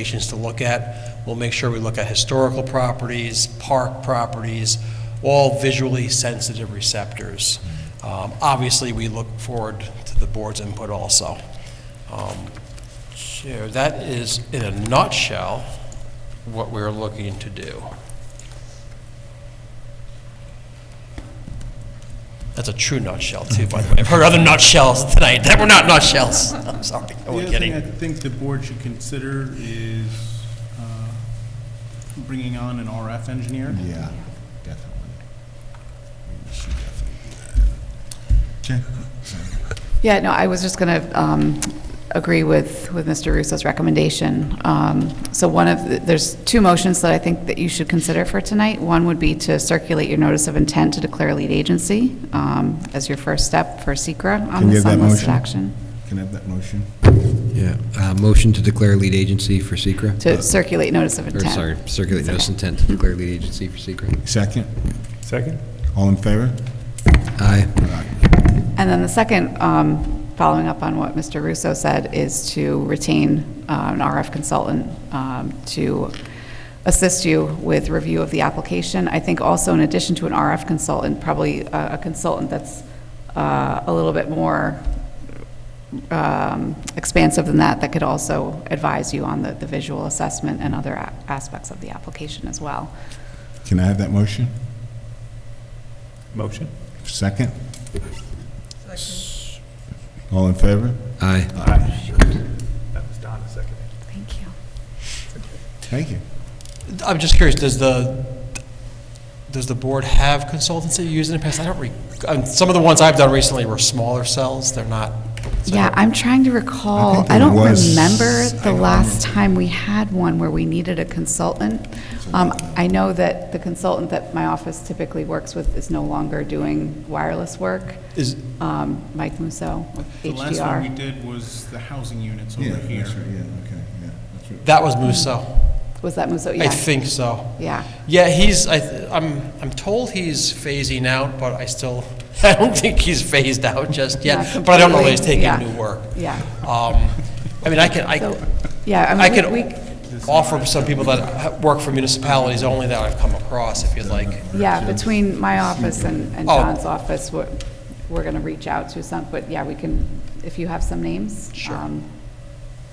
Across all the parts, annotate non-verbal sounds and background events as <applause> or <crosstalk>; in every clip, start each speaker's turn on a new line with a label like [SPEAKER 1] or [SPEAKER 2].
[SPEAKER 1] locations to look at. We'll make sure we look at historical properties, park properties, all visually sensitive receptors. Um, Obviously, we look forward to the board's input also. Um, So that is, in a nutshell, what we're looking to do. That's a true nutshell, too, by the way. I've heard other nutshells tonight that were not nutshells. <laughs> I'm sorry,
[SPEAKER 2] Oh,
[SPEAKER 1] I
[SPEAKER 3] The
[SPEAKER 1] was
[SPEAKER 3] other thing I
[SPEAKER 1] kidding.
[SPEAKER 3] think the board should consider is uh, bringing on an RF engineer.
[SPEAKER 4] Yeah, definitely. We should definitely do that.
[SPEAKER 5] Yeah, no, I was just going to agree with, with Mr. Russo's recommendation. Um, So one of, the- there's two motions that I think that you should consider for tonight. One would be to circulate your notice of intent to declare lead agency um, as your first step for secra
[SPEAKER 4] Can
[SPEAKER 5] on
[SPEAKER 4] you
[SPEAKER 5] this
[SPEAKER 4] have that
[SPEAKER 5] unlisted
[SPEAKER 4] motion?
[SPEAKER 5] action.
[SPEAKER 4] Can I have that motion?
[SPEAKER 6] Yeah, uh, motion to declare lead agency for secra.
[SPEAKER 5] To circulate notice of
[SPEAKER 6] Or
[SPEAKER 5] intent.
[SPEAKER 6] sorry, circulate notice intent to declare lead agency for secra.
[SPEAKER 4] Second?
[SPEAKER 2] Second?
[SPEAKER 4] All in favor?
[SPEAKER 6] Aye.
[SPEAKER 5] And then the second, um, following up on what Mr. Russo said, is to retain uh, an RF consultant um, to assist you with review of the application. I think also in addition to an RF consultant, probably a a consultant that's uh, a little bit more um, expansive than that, that could also advise you on the the visual assessment and other a- aspects of the application as well.
[SPEAKER 4] Can I have that motion?
[SPEAKER 2] Motion?
[SPEAKER 4] Second? All in favor?
[SPEAKER 6] Aye.
[SPEAKER 2] That was Donna seconding.
[SPEAKER 5] Thank you.
[SPEAKER 4] Thank you.
[SPEAKER 1] I'm just curious, does the, does the board have consultants that you use in the past? I don't re, um, some of the ones I've done recently were smaller cells, they're not. so I
[SPEAKER 5] Yeah,
[SPEAKER 1] don't-
[SPEAKER 5] I'm trying to recall,
[SPEAKER 4] think
[SPEAKER 5] I
[SPEAKER 4] there
[SPEAKER 5] don't
[SPEAKER 4] was-
[SPEAKER 5] remember
[SPEAKER 4] I
[SPEAKER 5] the
[SPEAKER 4] don't
[SPEAKER 5] last time we had one where we needed a consultant. Um, I know that the consultant that my office typically works with is no longer doing wireless work,
[SPEAKER 1] Is,
[SPEAKER 5] um, Mike Musso with
[SPEAKER 3] The last one we
[SPEAKER 5] HDR.
[SPEAKER 3] did was the housing units
[SPEAKER 4] Yeah,
[SPEAKER 3] over
[SPEAKER 4] that's right, yeah,
[SPEAKER 3] here.
[SPEAKER 4] okay, yeah, that's right.
[SPEAKER 1] that was Musso,
[SPEAKER 5] Was that Musso?
[SPEAKER 1] I
[SPEAKER 5] Yeah,
[SPEAKER 1] think so.
[SPEAKER 5] yeah.
[SPEAKER 1] Yeah, he's, I, th- I'm, I'm told he's phasing out, but I still, <laughs> I don't think he's phased out just yet,
[SPEAKER 5] Not
[SPEAKER 1] but I don't know that he's
[SPEAKER 5] completely,
[SPEAKER 1] taking
[SPEAKER 5] yeah.
[SPEAKER 1] new work.
[SPEAKER 5] Yeah.
[SPEAKER 1] Um, I mean, I can, I,
[SPEAKER 5] So, yeah,
[SPEAKER 1] I
[SPEAKER 5] I mean, we-
[SPEAKER 1] can
[SPEAKER 5] we,
[SPEAKER 1] offer some people that ha- work for municipalities only that I've come across, if you'd like.
[SPEAKER 5] yeah, between my office and and
[SPEAKER 1] Oh.
[SPEAKER 5] John's office, we're, we're going to reach out to some, but yeah, we can, if you have some names.
[SPEAKER 1] Sure.
[SPEAKER 5] um,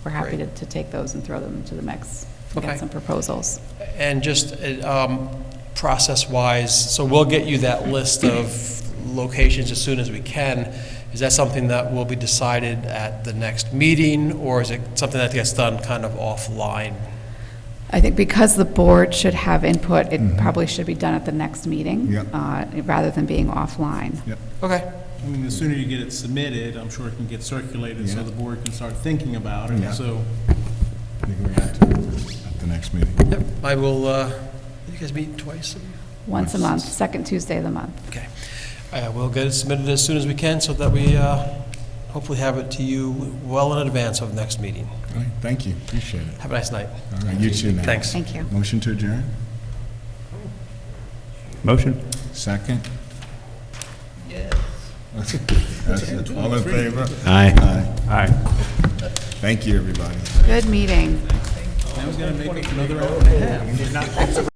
[SPEAKER 5] We're happy to,
[SPEAKER 1] Great.
[SPEAKER 5] to take those and throw them into the mix, and
[SPEAKER 1] Okay.
[SPEAKER 5] get some proposals.
[SPEAKER 1] And just uh, um, process-wise, so we'll get you that list of locations as soon as we can. Is that something that will be decided at the next meeting, or is it something that gets done kind of offline?
[SPEAKER 5] I think because the board should have input, it probably should be done at the next meeting.
[SPEAKER 4] Yep.
[SPEAKER 5] uh, Rather than being offline.
[SPEAKER 4] Yep,
[SPEAKER 1] Okay.
[SPEAKER 3] I mean, the sooner you get it submitted, I'm sure it can get circulated, so
[SPEAKER 4] Yeah.
[SPEAKER 3] the board can start thinking about it,
[SPEAKER 4] Yeah.
[SPEAKER 3] so.
[SPEAKER 4] I think we're back to at the next meeting.
[SPEAKER 1] Yep, I will, uh, you guys meet twice?
[SPEAKER 5] Once a month, second Tuesday of the month.
[SPEAKER 1] Okay. Uh, We'll get it submitted as soon as we can, so that we uh, hopefully have it to you well in advance of next meeting.
[SPEAKER 4] All right, thank you, appreciate it.
[SPEAKER 1] Have a nice night.
[SPEAKER 4] All right, you too now.
[SPEAKER 1] Thanks.
[SPEAKER 5] Thank you.
[SPEAKER 4] Motion to adjourn?
[SPEAKER 2] Motion?
[SPEAKER 4] Second? Yes. <laughs> All in favor?
[SPEAKER 6] Aye.
[SPEAKER 4] Aye.
[SPEAKER 2] Aye.
[SPEAKER 4] Thank you, everybody.
[SPEAKER 5] Good meeting.
[SPEAKER 3] Now he's gonna make another